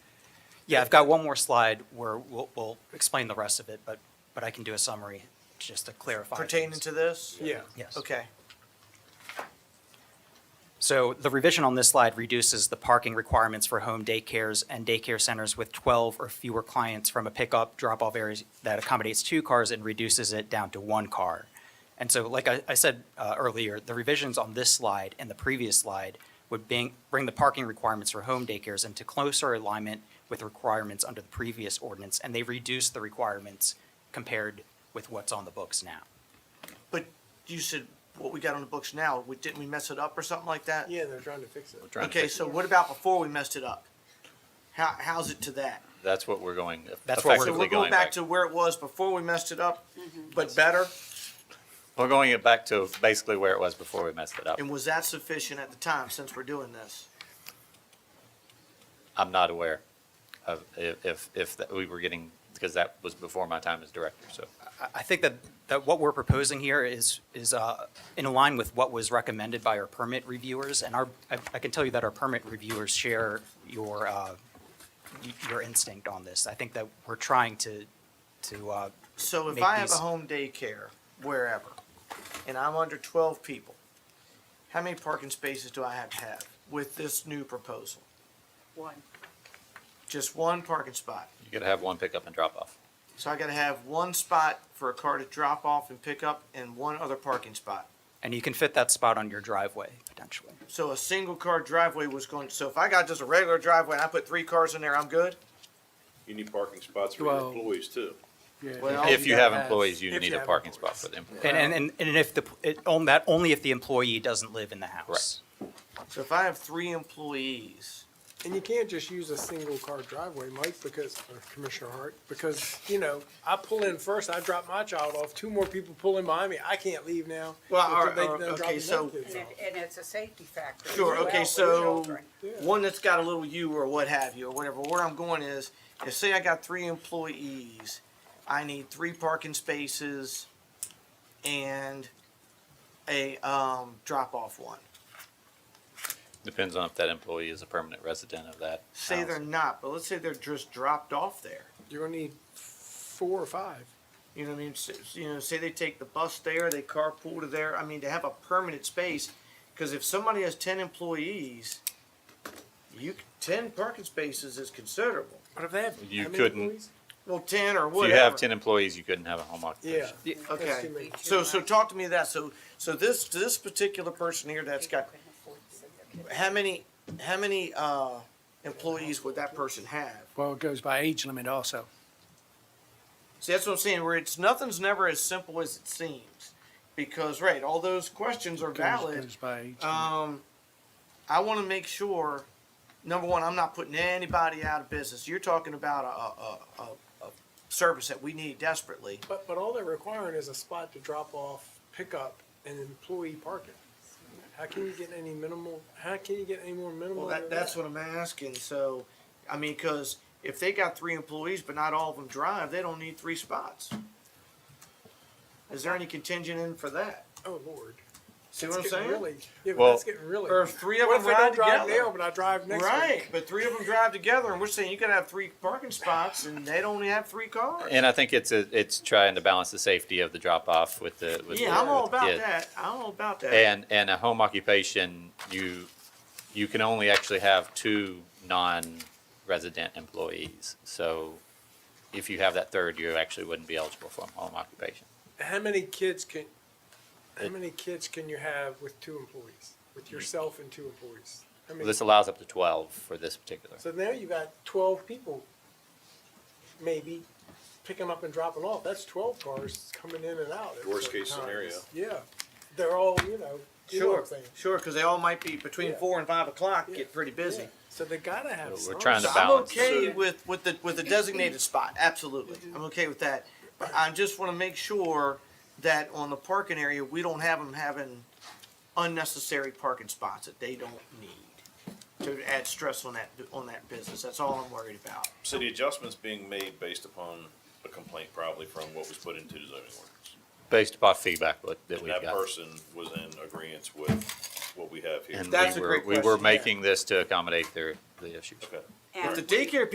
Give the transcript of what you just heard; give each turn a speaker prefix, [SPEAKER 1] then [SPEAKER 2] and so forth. [SPEAKER 1] Yeah, I've got one more slide where we'll, we'll explain the rest of it, but, but I can do a summary just to clarify.
[SPEAKER 2] pertaining
[SPEAKER 1] things.
[SPEAKER 2] to this?
[SPEAKER 3] Yeah.
[SPEAKER 1] Yes.
[SPEAKER 2] Okay,
[SPEAKER 1] So the revision on this slide reduces the parking requirements for home daycares and daycare centers with 12 or fewer clients from a pickup, drop-off area that accommodates two cars and reduces it down to one car. And so, like I I said uh, earlier, the revisions on this slide and the previous slide would bring bring the parking requirements for home daycares into closer alignment with requirements under the previous ordinance, and they reduce the requirements compared with what's on the books now.
[SPEAKER 2] but you said what we got on the books now, we, didn't we mess it up or something like that?
[SPEAKER 3] Yeah, they're trying to fix it.
[SPEAKER 4] trying to
[SPEAKER 2] Okay,
[SPEAKER 4] fix it.
[SPEAKER 2] so what about before we messed it up? How, how's it to that?
[SPEAKER 4] That's what we're going,
[SPEAKER 1] That's what we're-
[SPEAKER 2] So
[SPEAKER 4] effectively
[SPEAKER 2] we're going back to
[SPEAKER 4] to.
[SPEAKER 2] where it was before we messed it up, but better?
[SPEAKER 4] We're going it back to basically where it was before we messed it up.
[SPEAKER 2] And was that sufficient at the time since we're doing this?
[SPEAKER 4] I'm not aware of if, if, if that we were getting, because that was before my time as director, so.
[SPEAKER 1] I- I think that, that what we're proposing here is, is uh, in line with what was recommended by our permit reviewers, and our, I I can tell you that our permit reviewers share your, uh, y- your instinct on this. I think that we're trying to, to, uh,
[SPEAKER 2] So if
[SPEAKER 1] Make
[SPEAKER 2] I have a
[SPEAKER 1] these-
[SPEAKER 2] home daycare, wherever, and I'm under twelve people, how many parking spaces do I have to have with this new proposal?
[SPEAKER 5] One.
[SPEAKER 2] Just one parking spot.
[SPEAKER 4] You could have one pickup and drop off.
[SPEAKER 2] So I gotta have one spot for a car to drop off and pick up and one other parking spot.
[SPEAKER 1] and you can fit that spot on your driveway, potentially.
[SPEAKER 2] So a single car driveway was going, so if I got just a regular driveway and I put three cars in there, I'm good?
[SPEAKER 6] You need parking spots for your
[SPEAKER 3] Well-
[SPEAKER 6] employees too.
[SPEAKER 2] Well,
[SPEAKER 4] If you have employees,
[SPEAKER 3] if
[SPEAKER 4] you
[SPEAKER 3] you
[SPEAKER 4] need a
[SPEAKER 3] have
[SPEAKER 4] parking spot
[SPEAKER 3] employees.
[SPEAKER 4] for them.
[SPEAKER 1] And, and, and- and if the, it, on that, only if the employee doesn't live in the house.
[SPEAKER 2] So if I have three employees,
[SPEAKER 3] And you can't just use a single car driveway, Mike, because, or Commissioner Hart, because, you know, I pull in first, I drop my child off, two more people pull in behind me, I can't leave now.
[SPEAKER 2] Well,
[SPEAKER 3] until
[SPEAKER 2] or-
[SPEAKER 3] they-
[SPEAKER 2] or-
[SPEAKER 3] they're
[SPEAKER 2] okay,
[SPEAKER 3] dropping their
[SPEAKER 2] so-
[SPEAKER 3] kids
[SPEAKER 5] And
[SPEAKER 3] off.
[SPEAKER 5] it, and it's a safety factor. as
[SPEAKER 2] Sure,
[SPEAKER 5] well
[SPEAKER 2] okay,
[SPEAKER 5] with
[SPEAKER 2] so
[SPEAKER 5] children.
[SPEAKER 2] one that's got a little U or what have you, or whatever, where I'm going is, if say I got three employees, I need three parking spaces and a, um, drop-off one.
[SPEAKER 4] Depends on if that employee is a permanent resident of that
[SPEAKER 2] Say they're
[SPEAKER 4] house.
[SPEAKER 2] not, but let's say they're just dropped off there.
[SPEAKER 3] You're gonna need four or five.
[SPEAKER 2] You know what I mean? S- You know, say they take the bus there, they carpool to there. I mean, to have a permanent space, because if somebody has ten employees, you c- ten parking spaces is considerable.
[SPEAKER 3] What if they have?
[SPEAKER 4] You
[SPEAKER 3] how many
[SPEAKER 4] couldn't-
[SPEAKER 3] employees?
[SPEAKER 2] Well, ten or
[SPEAKER 4] If
[SPEAKER 2] whatever.
[SPEAKER 4] you have ten employees, you couldn't have a home occupation.
[SPEAKER 3] Yeah.
[SPEAKER 1] Yeah,
[SPEAKER 3] that's
[SPEAKER 2] Okay.
[SPEAKER 3] too many.
[SPEAKER 2] So, so talk to me of that. So, so this this particular person here that's got how many how many uh, employees would that person have?
[SPEAKER 7] Well, it goes by age limit also.
[SPEAKER 2] See, that's what I'm saying. Where it's nothing's never as simple as it seems, because right, all those questions are
[SPEAKER 7] Goes-
[SPEAKER 2] valid.
[SPEAKER 7] Goes by age.
[SPEAKER 3] Uh,
[SPEAKER 7] limit.
[SPEAKER 2] Um, I want to make sure, number one, I'm not putting anybody out of business. You're talking about a, a, a, a service that we need desperately.
[SPEAKER 3] But, but all they're requiring is a spot to drop off, pick up, and employee parking. How can you get any minimal, how can you get any more minimal?
[SPEAKER 2] Well, that,
[SPEAKER 3] than
[SPEAKER 2] that's what I'm asking. So, I mean, cause if they got three employees, but not all of them drive, they don't need three spots. Is there any contingent in for that?
[SPEAKER 3] Oh, Lord.
[SPEAKER 2] See what I'm
[SPEAKER 3] That's getting
[SPEAKER 2] saying?
[SPEAKER 3] really- Yeah, but
[SPEAKER 4] Well-
[SPEAKER 3] that's getting really.
[SPEAKER 2] Or if three of
[SPEAKER 3] What
[SPEAKER 2] them
[SPEAKER 3] if I don't
[SPEAKER 2] ride
[SPEAKER 3] drive now,
[SPEAKER 2] together?
[SPEAKER 3] but I drive next week?
[SPEAKER 2] Right, but three of them drive together and we're saying you could have three parking spots and they'd only have three cars.
[SPEAKER 4] And I think it's, a it's trying to balance the safety of the drop off with the, with the.
[SPEAKER 2] Yeah, I'm all
[SPEAKER 4] with the
[SPEAKER 2] about
[SPEAKER 4] kid.
[SPEAKER 2] that. I'm all about that.
[SPEAKER 4] And, and a home occupation, you, you can only actually have two non-resident employees. So if you have that third, you actually wouldn't be eligible for a home occupation.
[SPEAKER 3] How many kids can, how
[SPEAKER 4] It-
[SPEAKER 3] many kids can you have with two employees, with yourself and two employees? How many?
[SPEAKER 4] This allows up to twelve for this particular.
[SPEAKER 3] So now you got twelve people, maybe, picking up and dropping off. That's twelve cars coming in and out. at
[SPEAKER 6] Worst
[SPEAKER 3] certain
[SPEAKER 6] case
[SPEAKER 3] times.
[SPEAKER 6] scenario.
[SPEAKER 3] Yeah, they're all, you know, you know what
[SPEAKER 2] Sure,
[SPEAKER 3] I'm saying.
[SPEAKER 2] sure, because they all might be between
[SPEAKER 3] Yeah.
[SPEAKER 2] four and five o'clock,
[SPEAKER 3] Yeah.
[SPEAKER 2] get pretty busy.
[SPEAKER 3] Yeah. So they gotta have
[SPEAKER 4] We're
[SPEAKER 3] some.
[SPEAKER 4] trying to
[SPEAKER 2] So
[SPEAKER 4] Kinda
[SPEAKER 2] I'm
[SPEAKER 4] balance.
[SPEAKER 2] okay with, with the, with the designated spot, absolutely, I'm okay with that. But I just want to make sure that on the parking area, we don't have them having unnecessary parking spots that they don't need to add stress on that, on that business, that's all I'm worried about.
[SPEAKER 6] So the adjustments being made based upon a complaint probably from what was put into the zoning ordinance.
[SPEAKER 4] Based upon feedback what- that
[SPEAKER 6] And
[SPEAKER 4] we've
[SPEAKER 6] that
[SPEAKER 4] got.
[SPEAKER 6] person was in agreement with what we have here.
[SPEAKER 4] And
[SPEAKER 2] That's
[SPEAKER 4] we
[SPEAKER 2] a
[SPEAKER 4] were-
[SPEAKER 2] great
[SPEAKER 4] We were
[SPEAKER 2] question, yeah.
[SPEAKER 4] making this to accommodate their, the issues.
[SPEAKER 6] Okay.
[SPEAKER 5] And
[SPEAKER 2] If the daycare